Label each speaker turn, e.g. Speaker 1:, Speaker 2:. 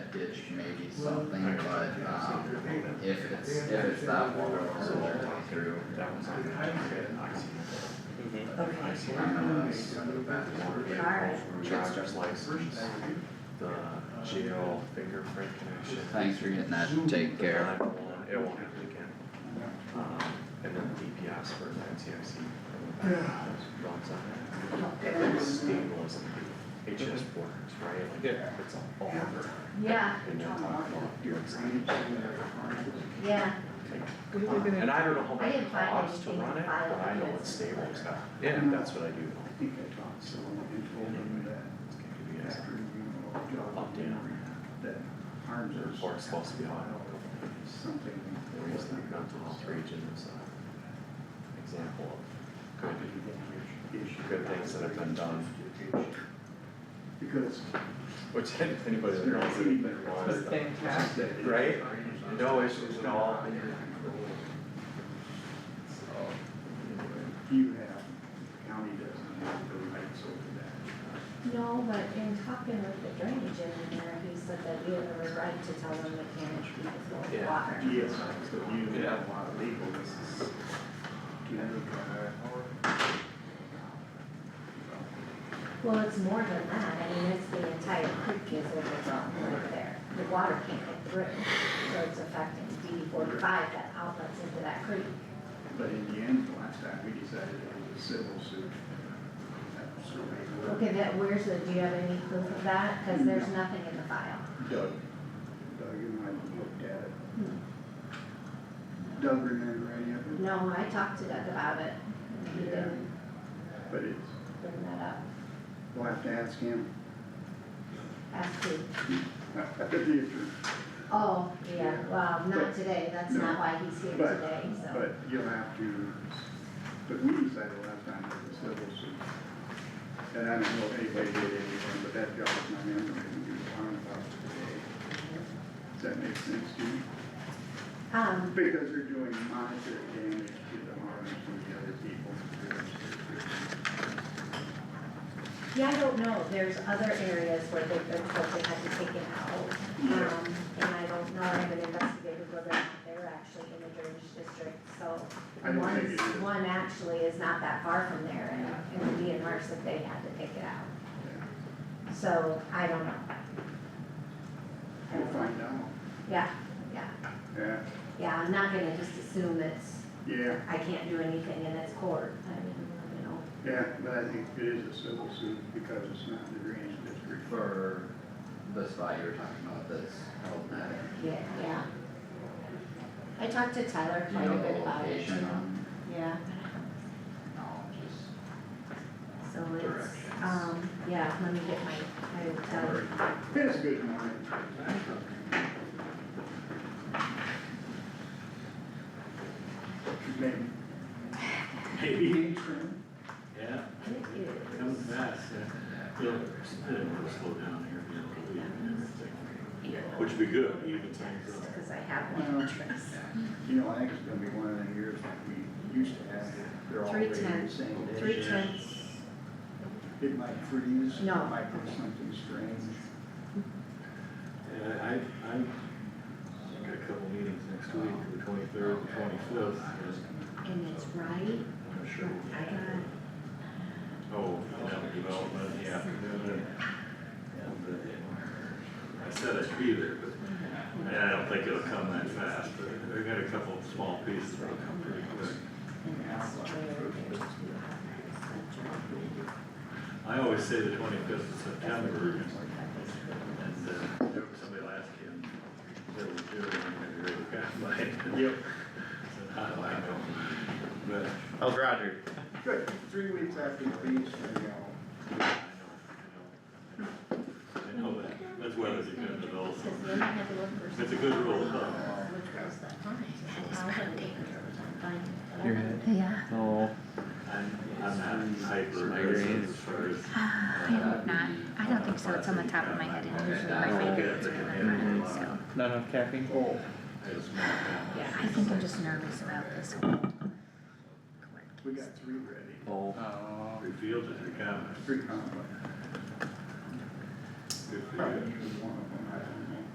Speaker 1: ditch maybe something, but, um, if it's, if it's that water all the way through.
Speaker 2: Okay.
Speaker 1: I'm gonna, I'm gonna back
Speaker 2: All
Speaker 1: it
Speaker 2: right.
Speaker 3: Driver's license, the jail fingerprint connection.
Speaker 1: Thanks for getting that taken
Speaker 3: the
Speaker 1: care
Speaker 3: 911, It won't happen again. Um, and then DPS for the NCIC. Runs on it. And then stables and HS boards, right? Like,
Speaker 4: Yeah.
Speaker 3: It's all over.
Speaker 2: Yeah,
Speaker 3: And they're talking about doing something.
Speaker 2: yeah,
Speaker 3: Like, And I don't know how
Speaker 2: I
Speaker 3: much
Speaker 2: didn't
Speaker 3: it
Speaker 2: find
Speaker 3: costs to
Speaker 2: anything
Speaker 3: run it, but
Speaker 2: filed
Speaker 3: I know
Speaker 2: against
Speaker 3: it's
Speaker 2: it.
Speaker 3: stables got,
Speaker 4: Yeah.
Speaker 3: and that's what I do.
Speaker 5: I think I talked to someone and told them that
Speaker 3: DPS.
Speaker 5: after you know,
Speaker 3: Up,
Speaker 5: job
Speaker 3: down.
Speaker 5: that harms us.
Speaker 3: Or it's supposed to be on.
Speaker 5: Something.
Speaker 3: Or is that not to outreach in this, uh, example of good good things that have been done.
Speaker 5: Because.
Speaker 3: Which anybody that knows it wants them.
Speaker 4: Fantastic.
Speaker 3: Right? No issues at all.
Speaker 5: You have, the county doesn't have the rights over that.
Speaker 2: no, but in talking with the drainage engineer, he said that we have a right to tell them they can't treat the
Speaker 3: Yeah.
Speaker 2: water.
Speaker 5: Yes, so you have a lot of legal, this is.
Speaker 2: Well, it's more than that, I mean, it's the entire creek is overgrown right there, the water can't get through, so it's affecting D forty-five that outlets into that creek.
Speaker 5: But in the end, the last time we decided it was a civil suit. uh, That was the way it worked.
Speaker 2: Okay, that, where's the, do you have any proof of that? Cause there's nothing in the file.
Speaker 5: Doug. Doug and I looked at it.
Speaker 2: Hmm.
Speaker 5: Doug remember any of it?
Speaker 2: No, I talked to Doug about it, and he didn't
Speaker 5: But it's,
Speaker 2: bring that up,
Speaker 5: we'll have to ask him,
Speaker 2: ask who.
Speaker 5: the future,
Speaker 2: Oh, yeah, well, not
Speaker 5: But-
Speaker 2: today, that's
Speaker 5: No.
Speaker 2: not why he's here
Speaker 5: But-
Speaker 2: today, so.
Speaker 5: but you'll have to, but we decided last time it was civil suit. And I don't know if anybody did anything, but that jogs my memory when you were talking about it today. Does that make sense to you?
Speaker 2: Um,
Speaker 5: Because you're doing monetary damage to the harm from the other people.
Speaker 2: yeah, I don't know, there's other areas where they've been told they had to take it out.
Speaker 5: Yeah.
Speaker 2: Um, and I don't know, I haven't investigated whether or not they're actually in the drainage district, so.
Speaker 5: I don't
Speaker 2: one
Speaker 5: think
Speaker 2: is-
Speaker 5: it is.
Speaker 2: One actually is not that far from there, and, and the DNR said they had to take it out, so I don't know. I
Speaker 5: We'll
Speaker 2: don't know.
Speaker 5: find out.
Speaker 2: Yeah, yeah,
Speaker 5: Yeah,
Speaker 2: yeah, I'm not gonna just assume it's,
Speaker 5: yeah,
Speaker 2: I can't do anything in its court, I mean, you know.
Speaker 5: yeah, but I think it is a civil suit because it's not in the drainage district.
Speaker 1: for the spot you were talking about that's held net.
Speaker 2: Yeah, yeah. I talked to Tyler
Speaker 1: Do you
Speaker 2: quite a
Speaker 1: know the
Speaker 2: bit about it, you
Speaker 1: location
Speaker 2: know,
Speaker 1: on,
Speaker 2: yeah,
Speaker 1: no, just
Speaker 2: so it's,
Speaker 1: Directions.
Speaker 2: um, yeah, let me get my, my, uh,
Speaker 5: It's good morning. Maybe. Maybe.
Speaker 6: Yeah,
Speaker 2: it is.
Speaker 6: comes fast, yeah. It'll, it'll slow down here, you know, leave and everything,
Speaker 2: Here.
Speaker 6: which would be good, even things
Speaker 2: Text,
Speaker 6: up.
Speaker 2: Cause I have one address.
Speaker 5: You know, I think it's gonna be one of the years like we used to have, they're all
Speaker 2: Three
Speaker 5: rated the
Speaker 2: tenths.
Speaker 5: same day.
Speaker 2: Three tenths,
Speaker 5: It might freeze, it
Speaker 2: No.
Speaker 5: might do something strange.
Speaker 6: And I, I, I got a couple meetings next week, the twenty-third, the twenty-fifth,
Speaker 2: and it's right,
Speaker 6: I'm not sure. what
Speaker 2: I got-
Speaker 6: Oh, economic development in the afternoon. I said I'd be there, but, and I don't think it'll come that fast, but I got a couple of small pieces that'll come pretty quick.
Speaker 2: and it's where there's two houses.
Speaker 6: I always say the twenty-fifth of September, and
Speaker 2: September.
Speaker 6: And, uh, there was somebody last year, they were doing, and they were kind of like. Yep. I don't know, but
Speaker 3: How's Roger?
Speaker 5: Good, three weeks after the beach, maybe I'll
Speaker 6: I know, I know, I know, I know that, that's why it's a good result.
Speaker 2: Because then I had to look for.
Speaker 6: It's a good rule of thumb.
Speaker 2: Which was that fine.
Speaker 3: You're good.
Speaker 7: Yeah,
Speaker 3: No.
Speaker 6: I'm, I'm not hyper aggressive as far as.
Speaker 7: I hope not. I don't think so. It's on the top of my head and usually my fingertips are on mine, so.
Speaker 8: Not enough caffeine? Oh.
Speaker 6: It's more kind
Speaker 2: Yeah,
Speaker 7: I think I'm just nervous about this whole.
Speaker 5: We got three ready,
Speaker 3: Oh.
Speaker 6: of revealed as a comment.
Speaker 5: three complex.
Speaker 6: Good for
Speaker 5: Probably
Speaker 6: you.
Speaker 5: one of them.